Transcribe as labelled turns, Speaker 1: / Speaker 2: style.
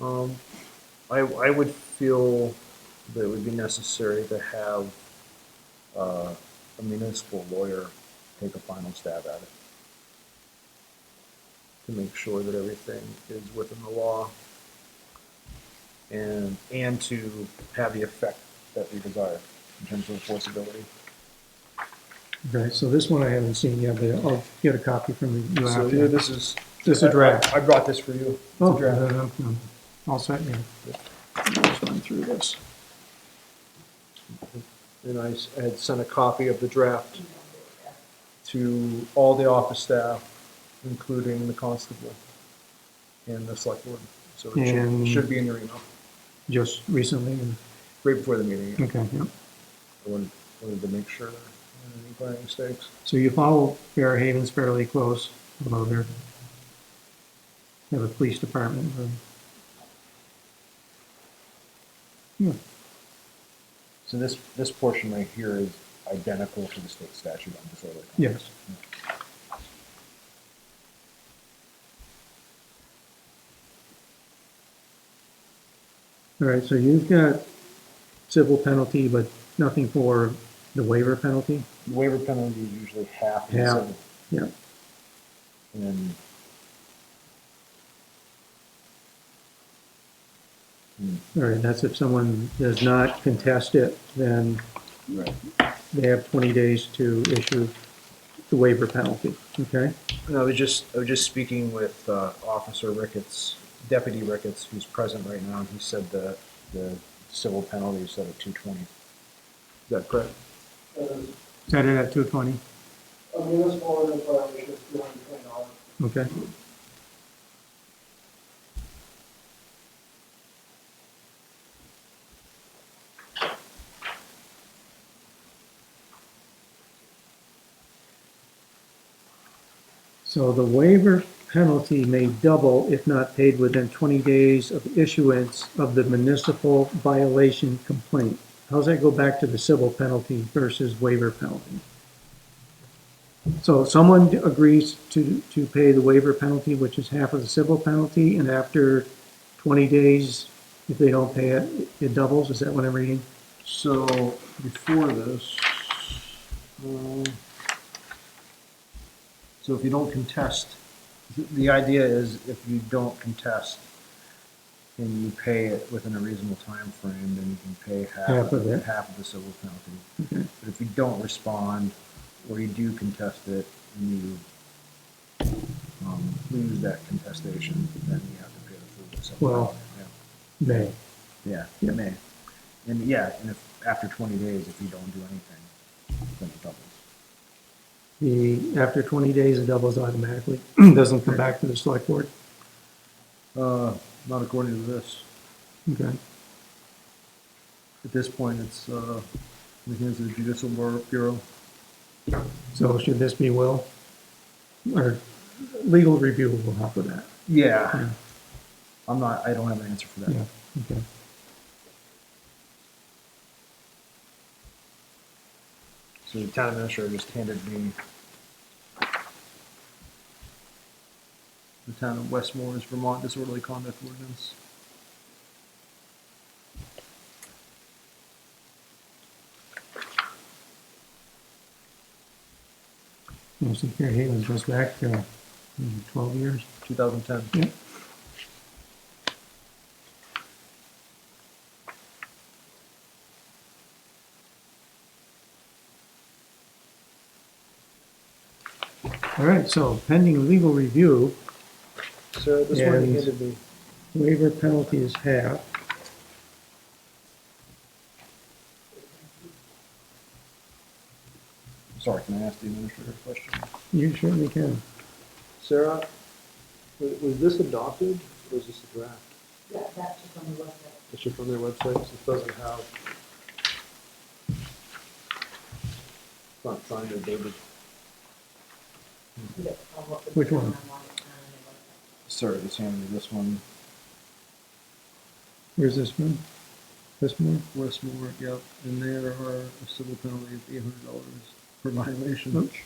Speaker 1: Um, I, I would feel that it would be necessary to have, uh, a municipal lawyer take a final stab at it. To make sure that everything is within the law. And, and to have the effect that we desire in terms of enforceability.
Speaker 2: Okay, so this one I haven't seen yet, but I'll get a copy from you.
Speaker 1: So
Speaker 2: after.
Speaker 1: yeah, this is.
Speaker 2: This is a draft.
Speaker 1: I I brought this for you. It's a
Speaker 2: Oh,
Speaker 1: draft.
Speaker 2: then I'm- I'm all set, yeah. Just run through this.
Speaker 1: And I s- had sent a copy of the draft to all the office staff, including the constable and the select board. So it should, it
Speaker 2: And-
Speaker 1: should be in your email,
Speaker 2: Just recently, and-
Speaker 1: right before the meeting.
Speaker 2: okay, yeah.
Speaker 1: I wanted, wanted to make sure there weren't any glaring mistakes.
Speaker 2: So you follow Fair Havens fairly close, although they're, they have a police department, but. Yeah,
Speaker 1: So this, this portion right here is identical to the state statute on disorderly conduct.
Speaker 2: Yes. All right, so you've got civil penalty, but nothing for the waiver penalty?
Speaker 1: The Waiver penalty is usually half of the
Speaker 2: Yeah.
Speaker 1: civil.
Speaker 2: Yeah.
Speaker 1: And then. Hmm.
Speaker 2: All right, that's if someone does not contest it, then
Speaker 1: Right.
Speaker 2: they have 20 days to issue the waiver penalty, okay?
Speaker 1: And I was just, I was just speaking with uh, Officer Ricketts, Deputy Ricketts, who's present right now, and he said the, the civil penalties that are two twenty. Is that correct?
Speaker 3: Uh,
Speaker 2: Set it at 220,
Speaker 3: A municipal ordinance violation is two hundred twenty dollars.
Speaker 2: okay? So the waiver penalty may double if not paid within 20 days of issuance of the municipal violation complaint. How's that go back to the civil penalty versus waiver penalty? So someone agrees to, to pay the waiver penalty, which is half of the civil penalty, and after 20 days, if they don't pay it, it doubles? Is that what I'm reading?
Speaker 1: So before this, um, so if you don't contest, th- the idea is if you don't contest and you pay it within a reasonable time frame, then you can pay half,
Speaker 2: Half of it.
Speaker 1: half of the civil penalty.
Speaker 2: Okay.
Speaker 1: But if you don't respond, or you do contest it, and you um, lose that contestation, then you have to pay the full civil
Speaker 2: Well-
Speaker 1: penalty. Yeah.
Speaker 2: May.
Speaker 1: Yeah,
Speaker 2: Yeah.
Speaker 1: it may. And yeah, and if, after twenty days, if you don't do anything, then it doubles.
Speaker 2: The, after 20 days, it doubles automatically, doesn't come back to the select board?
Speaker 1: Uh, not according to this.
Speaker 2: Okay.
Speaker 1: At this point, it's, uh, in the hands of the judicial Bur- bureau.
Speaker 2: So should this be will? Or legal review will help with that?
Speaker 1: Yeah.
Speaker 2: Yeah.
Speaker 1: I'm not, I don't have an answer for
Speaker 2: Yeah,
Speaker 1: that.
Speaker 2: okay.
Speaker 1: So the town administrator just handed me the town of Westmore's Vermont disorderly conduct ordinance.
Speaker 2: You see, Fair Havens goes back to hmm, 12 years.
Speaker 1: 2010.
Speaker 2: Yeah. All right, so pending legal review,
Speaker 1: So this one he
Speaker 2: And-
Speaker 1: handed me.
Speaker 2: waiver penalty is half.
Speaker 1: Sorry, can I ask the administrator a question?
Speaker 2: You certainly can.
Speaker 3: Sarah, wa- was this adopted, or is this a draft?
Speaker 4: That, that's just on the website.
Speaker 3: It's just on their website, so it doesn't have. It's not signed or dated.
Speaker 4: You don't know what the-
Speaker 2: Which one?
Speaker 4: on the
Speaker 1: Sir, just handed me this one.
Speaker 2: Where's this one? This one?
Speaker 1: Westmore, yep, and there are a civil penalty of eight hundred dollars per violation.
Speaker 2: Oops.